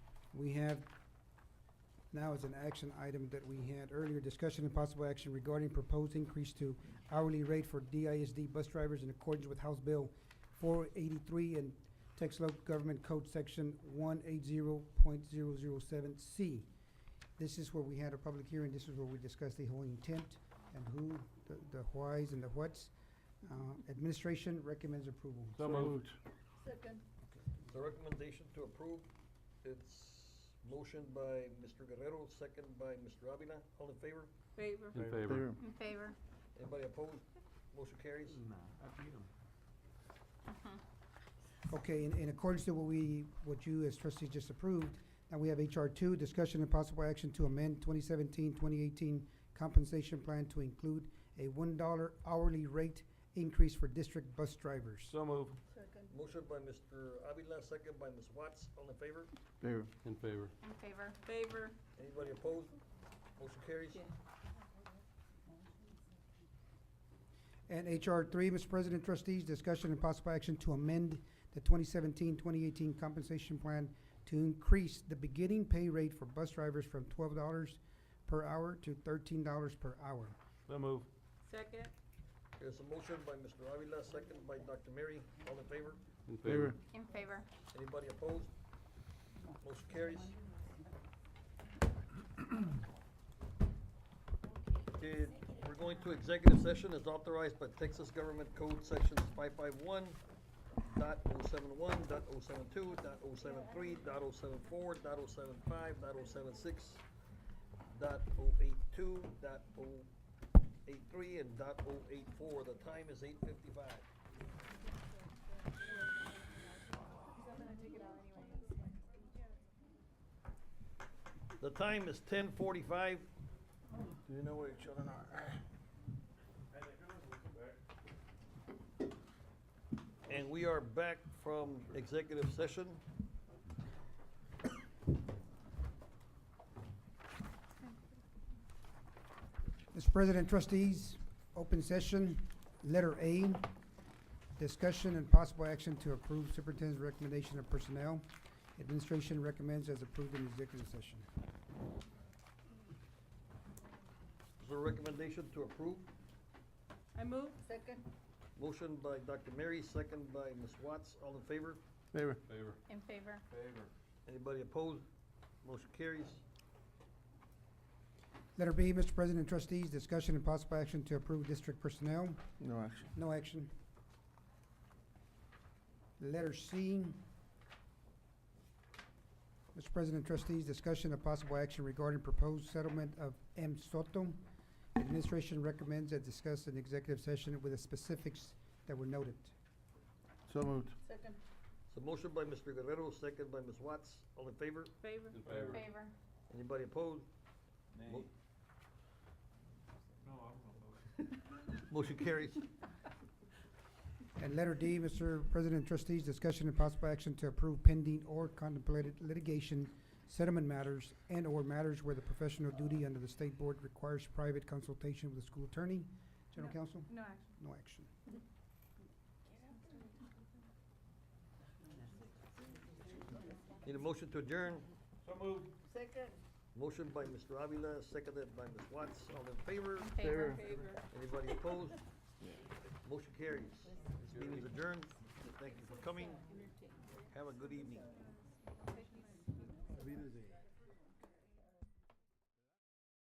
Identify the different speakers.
Speaker 1: We have, now is an action item that we had earlier, discussion and possible action regarding proposed increase to hourly rate for DISD bus drivers in accordance with House Bill four eighty-three and Texas Local Government Code Section one eight zero point zero zero seven C. This is where we had a public hearing, this is where we discussed the whole intent and who, the, the whys and the whats. Uh, administration recommends approval.
Speaker 2: So moved.
Speaker 3: Second.
Speaker 4: The recommendation to approve, it's motion by Mr. Guerrero, second by Mr. Avila. All in favor?
Speaker 3: Favor.
Speaker 2: In favor.
Speaker 3: In favor.
Speaker 4: Anybody opposed? Motion carries.
Speaker 1: Okay, in, in accordance to what we, what you as trustees just approved, now we have HR two, discussion and possible action to amend 2017-2018 compensation plan to include a one dollar hourly rate increase for district bus drivers.
Speaker 2: So moved.
Speaker 3: Second.
Speaker 4: Motion by Mr. Avila, second by Ms. Watts. All in favor?
Speaker 5: Favor.
Speaker 2: In favor.
Speaker 3: In favor. Favor.
Speaker 4: Anybody opposed? Motion carries.
Speaker 3: Yeah.
Speaker 1: And HR three, Mr. President, trustees, discussion and possible action to amend the 2017-2018 compensation plan to increase the beginning pay rate for bus drivers from twelve dollars per hour to thirteen dollars per hour.
Speaker 2: So moved.
Speaker 3: Second.
Speaker 4: There's a motion by Mr. Avila, second by Dr. Mary. All in favor?
Speaker 2: In
Speaker 5: Favor.
Speaker 3: In favor.
Speaker 4: Anybody opposed? Motion carries. Okay, we're going to executive session as authorized by Texas Government Code Sections five five one dot oh seven one, dot oh seven two, dot oh seven three, dot oh seven four, dot oh seven five, dot oh seven six, dot oh eight two, dot oh eight three, and dot oh eight four. The time is eight fifty-five. The time is ten forty-five. Do you know where your children are? And we are back from executive session.
Speaker 1: Mr. President, trustees, open session, letter A, discussion and possible action to approve superintendent's recommendation of personnel. Administration recommends as approved in executive session.
Speaker 4: Is there a recommendation to approve?
Speaker 3: I move. Second.
Speaker 4: Motion by Dr. Mary, second by Ms. Watts. All in favor?
Speaker 5: Favor.
Speaker 2: Favor.
Speaker 3: In favor.
Speaker 4: Anybody opposed? Motion carries.
Speaker 1: Letter B, Mr. President, trustees, discussion and possible action to approve district personnel.
Speaker 5: No action.
Speaker 1: No action. Letter C. Mr. President, trustees, discussion of possible action regarding proposed settlement of M. Soto. Administration recommends that discussed in executive session with the specifics that were noted.
Speaker 5: So moved.
Speaker 3: Second.
Speaker 4: So motion by Mr. Guerrero, second by Ms. Watts. All in favor?
Speaker 3: Favor.
Speaker 2: In favor.
Speaker 3: Favor.
Speaker 4: Anybody opposed? Mo- Motion carries.
Speaker 1: And letter D, Mr. President, trustees, discussion and possible action to approve pending or contemplated litigation, settlement matters, and/or matters where the professional duty under the state board requires private consultation with the school attorney. General
Speaker 3: No.
Speaker 1: counsel,
Speaker 3: No action.
Speaker 1: no action.
Speaker 4: Need a motion to adjourn?
Speaker 2: So moved.
Speaker 3: Second.
Speaker 4: Motion by Mr. Avila, seconded by Ms. Watts. All in favor?
Speaker 3: In
Speaker 5: Favor.
Speaker 3: favor. Favor.
Speaker 4: Anybody opposed? Motion carries. This meeting is adjourned. Thank you for coming. Have a good evening.